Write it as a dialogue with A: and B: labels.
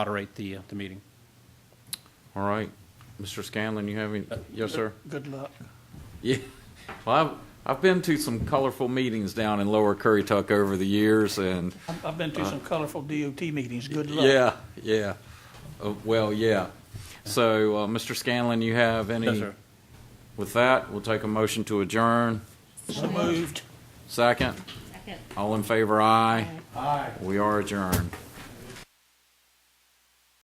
A: moderate the, uh, the meeting.
B: All right. Mr. Scanlon, you have any, yes, sir?
C: Good luck.
B: Yeah. Well, I've, I've been to some colorful meetings down in Lower Currituck over the years and,
C: I've- I've been to some colorful DOT meetings. Good luck.
B: yeah, yeah. Uh, Well, yeah. So, uh, Mr. Scanlon, you have any?
A: Yes, sir.
B: With that, we'll take a motion to adjourn.
C: So moved.
B: Second,
D: Second.
B: all in favor, aye.
C: Aye.
B: We are adjourned.